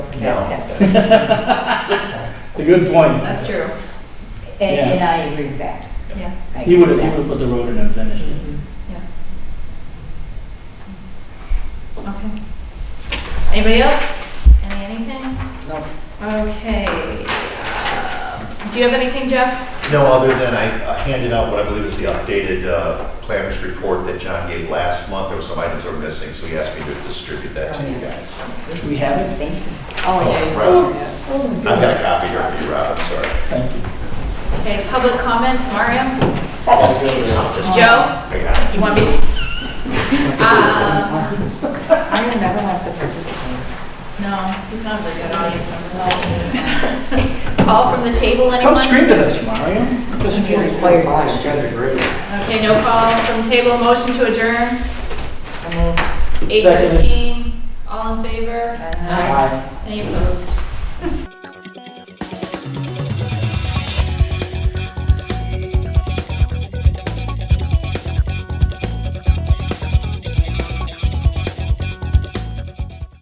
No. A good point. That's true. And, and I agree with that. Yeah. I He agree would have, with he that. would have put the road in and finished it. Okay. Anybody else? Any anything? No. Okay. uh, Do you have anything, Jeff? No, other than I I handed out what I believe is the updated uh, planners report that John gave last month. There were some items that were missing, so he asked me to distribute that to you guys. We have it? Thank you. Oh, yeah. Rob, I've got a copy here for you, Rob, I'm sorry. Thank you. Okay, public comments, Mario? I'll just- Joe? I got it. You want me? Uh, I never wants to participate. No, he's not a very good audience member. Call from the table, anyone? Come scream at us, Mario. It Doesn't feel like Required by- Okay, no call from table, motion to adjourn, I mean, eight thirteen, all in favor? Aye. Any opposed?